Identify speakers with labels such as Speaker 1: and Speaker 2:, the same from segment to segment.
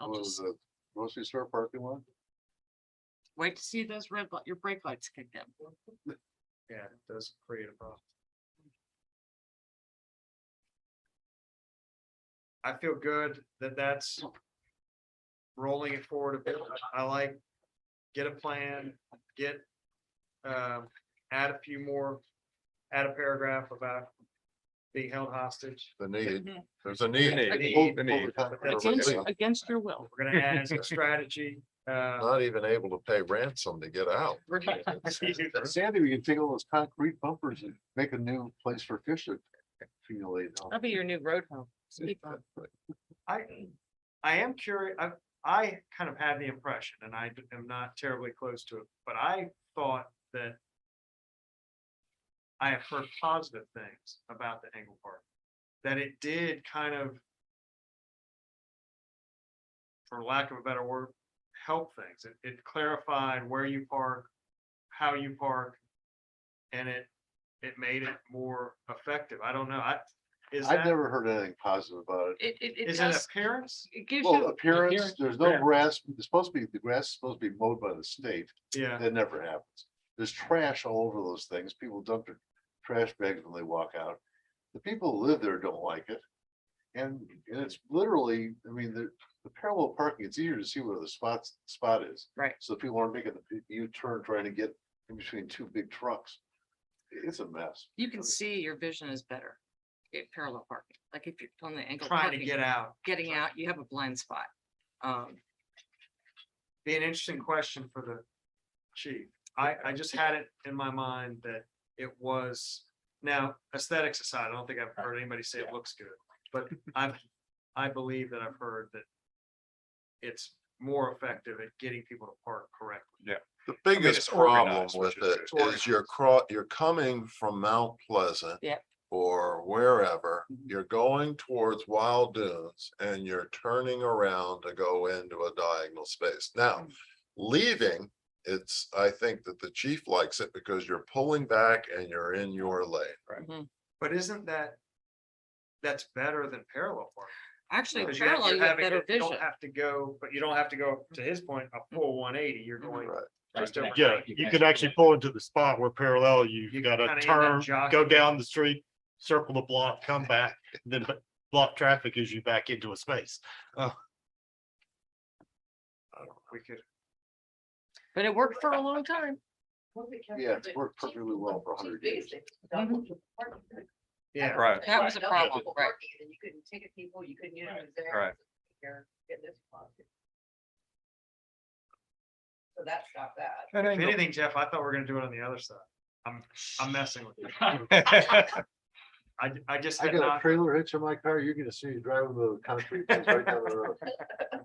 Speaker 1: I'll
Speaker 2: was
Speaker 1: just
Speaker 2: the grocery store parking lot.
Speaker 1: wait to see those red, li- your brake lights kick in.
Speaker 3: Yeah, it does create a problem. I feel good that that's rolling it forward a bit. I like, get a plan, get, um, add a few more, add a paragraph about being held hostage.
Speaker 2: The need,
Speaker 1: Mhm.
Speaker 2: there's a need.
Speaker 4: The
Speaker 2: Over-
Speaker 4: need,
Speaker 2: over
Speaker 4: the need.
Speaker 2: time,
Speaker 3: That's
Speaker 2: over
Speaker 3: it.
Speaker 1: Against,
Speaker 2: time.
Speaker 1: against your will.
Speaker 3: We're gonna add a strategy, uh,
Speaker 2: Not even able to pay ransom to get out.
Speaker 1: Right.
Speaker 2: Sandy, we can take all those concrete bumpers and make a new place for fish to accumulate.
Speaker 1: That'll be your new road home. Speak on.
Speaker 3: I, I am curious, I, I kind of had the impression, and I d- am not terribly close to it, but I thought that I have heard positive things about the Engle Park, that it did kind of for lack of a better word, help things. It, it clarified where you park, how you park, and it, it made it more effective. I don't know, I, is
Speaker 5: I've
Speaker 3: that,
Speaker 5: never heard anything positive about it.
Speaker 1: It, it, it
Speaker 3: is it
Speaker 1: does,
Speaker 3: appearance?
Speaker 1: it gives
Speaker 5: Well,
Speaker 1: you,
Speaker 5: appearance, there's no
Speaker 3: Yeah.
Speaker 5: grass, it's supposed to be, the grass is supposed to be mowed by the state,
Speaker 3: Yeah.
Speaker 5: that never happens. There's trash all over those things, people dump their trash bags when they walk out. The people who live there don't like it. And, and it's literally, I mean, the, the parallel parking, it's easier to see where the spots, spot is.
Speaker 1: Right.
Speaker 5: So people aren't making the U-turn trying to get in between two big trucks. It's a mess.
Speaker 1: you can see your vision is better. It parallel parking, like if you're on the angle.
Speaker 3: trying to
Speaker 1: parking,
Speaker 3: get out.
Speaker 1: Getting out, you have a blind spot. Um,
Speaker 3: Be an interesting question for the chief. I, I just had it in my mind that it was, now aesthetics aside, I don't think I've heard anybody say it looks good. But I've, I believe that I've heard that it's more effective at getting people to park correctly.
Speaker 2: The
Speaker 4: mean,
Speaker 2: biggest
Speaker 4: it's
Speaker 2: problem
Speaker 4: organized,
Speaker 2: with
Speaker 4: which is
Speaker 2: it
Speaker 3: good.
Speaker 2: is you're cro- you're coming from Mount Pleasant.
Speaker 1: Yep.
Speaker 2: Or wherever,
Speaker 1: Mhm.
Speaker 2: you're going towards Wild Dunes and you're turning around to go into a diagonal space. Now,
Speaker 1: Mhm.
Speaker 2: leaving, it's, I think that the chief likes it because you're pulling back and you're in your lane.
Speaker 3: But isn't that, that's better than parallel parking?
Speaker 1: actually,
Speaker 3: Because you have-
Speaker 1: parallel,
Speaker 3: you're
Speaker 1: you have
Speaker 3: having-
Speaker 1: better
Speaker 3: you
Speaker 1: vision.
Speaker 3: Don't have to go, but you don't have to go, to his point, a full one eighty, you're
Speaker 1: Mhm.
Speaker 3: going
Speaker 2: Right.
Speaker 3: just over.
Speaker 6: Yeah,
Speaker 3: 90.
Speaker 6: you could actually pull into the spot where parallel,
Speaker 3: You
Speaker 6: you've got
Speaker 3: kinda
Speaker 6: to
Speaker 3: end up
Speaker 6: turn, go
Speaker 3: jockeying.
Speaker 6: down the street, circle the block, come back, then b- block traffic as you back into a space.
Speaker 3: We could
Speaker 1: But it worked for a long time.
Speaker 5: Yeah, it's worked perfectly well for a hundred years.
Speaker 3: Yeah,
Speaker 4: Right.
Speaker 1: That was a problem, right?
Speaker 7: And you couldn't ticket people, you couldn't use them as
Speaker 4: Right.
Speaker 7: there. So that stopped that.
Speaker 3: if anything, Jeff, I thought we were gonna do it on the other side. I'm, I'm messing with you. I, I just
Speaker 5: I
Speaker 3: had
Speaker 5: got a
Speaker 3: not,
Speaker 5: trailer hitch in my car, you're gonna see me driving the concrete. things right down the road.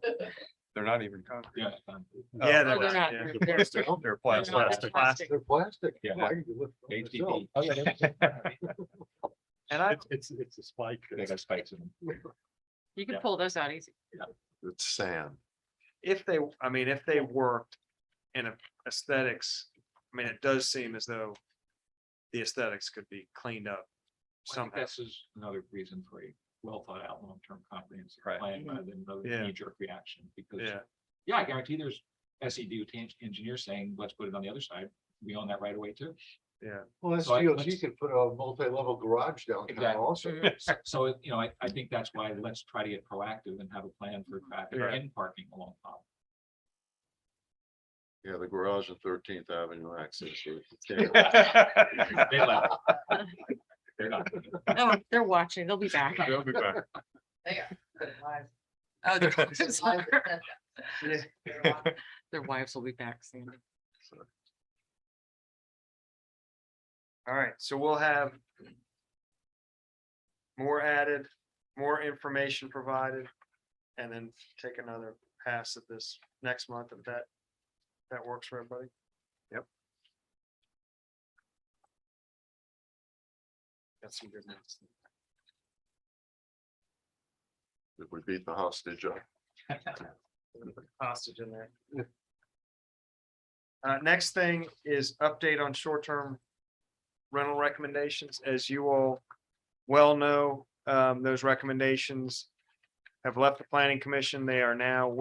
Speaker 4: They're not even concrete.
Speaker 3: yeah,
Speaker 1: No, Oh,
Speaker 3: Oh, they're
Speaker 1: they're
Speaker 3: not,
Speaker 1: not.
Speaker 3: yeah.
Speaker 1: They're-
Speaker 6: The
Speaker 1: they're-
Speaker 6: plastic-
Speaker 1: they're
Speaker 4: They're
Speaker 1: not
Speaker 4: plastic.
Speaker 6: plastic.
Speaker 1: plastic.
Speaker 5: They're plastic.
Speaker 4: Yeah.
Speaker 5: I can lift them myself.
Speaker 4: HDD. Oh, yeah, they-
Speaker 3: and I,
Speaker 6: It's, it's, it's a spike.
Speaker 4: They got spikes in them.
Speaker 1: You can
Speaker 6: Yeah.
Speaker 1: pull those out easy.
Speaker 2: It's sand.
Speaker 3: if they, I mean, if they worked in a- aesthetics, I mean, it does seem as though the aesthetics could be cleaned up
Speaker 8: I think
Speaker 3: somehow.
Speaker 8: This is another reason for a well thought out, long-term comprehensive
Speaker 4: Right.
Speaker 8: plan rather than another
Speaker 3: Yeah.
Speaker 8: knee jerk reaction because.
Speaker 3: Yeah,
Speaker 8: Yeah, I guarantee there's S E D engineers saying, let's put it on the other side. We own that right away too.
Speaker 5: Well, that's
Speaker 8: So I-
Speaker 5: DOT
Speaker 8: let's-
Speaker 5: could put a multi-level garage downtown
Speaker 8: Exactly.
Speaker 5: also.
Speaker 8: So- So, it- you know, I, I think that's why let's try to get proactive and have a plan for traffic
Speaker 3: Right.
Speaker 8: and parking along. Powell.
Speaker 2: Yeah, the garage and Thirteenth Avenue access. road.
Speaker 8: They left. They're not.
Speaker 1: No, Oh, they're watching. They'll be back.
Speaker 4: They'll be back.
Speaker 7: They are. Their wives-
Speaker 1: Oh, their
Speaker 7: their
Speaker 1: wives
Speaker 7: wives
Speaker 1: are-
Speaker 7: said that. Their wives.
Speaker 1: Their wives will be back soon.
Speaker 3: all right, so we'll have more added, more information provided, and then take another pass at this next month if that, that works for everybody. Yep. Got some good news.
Speaker 2: If we beat the hostage up.
Speaker 3: hostage in there. Uh, next thing is update on short-term rental recommendations. As you all well know, um, those recommendations have left the planning commission. They are now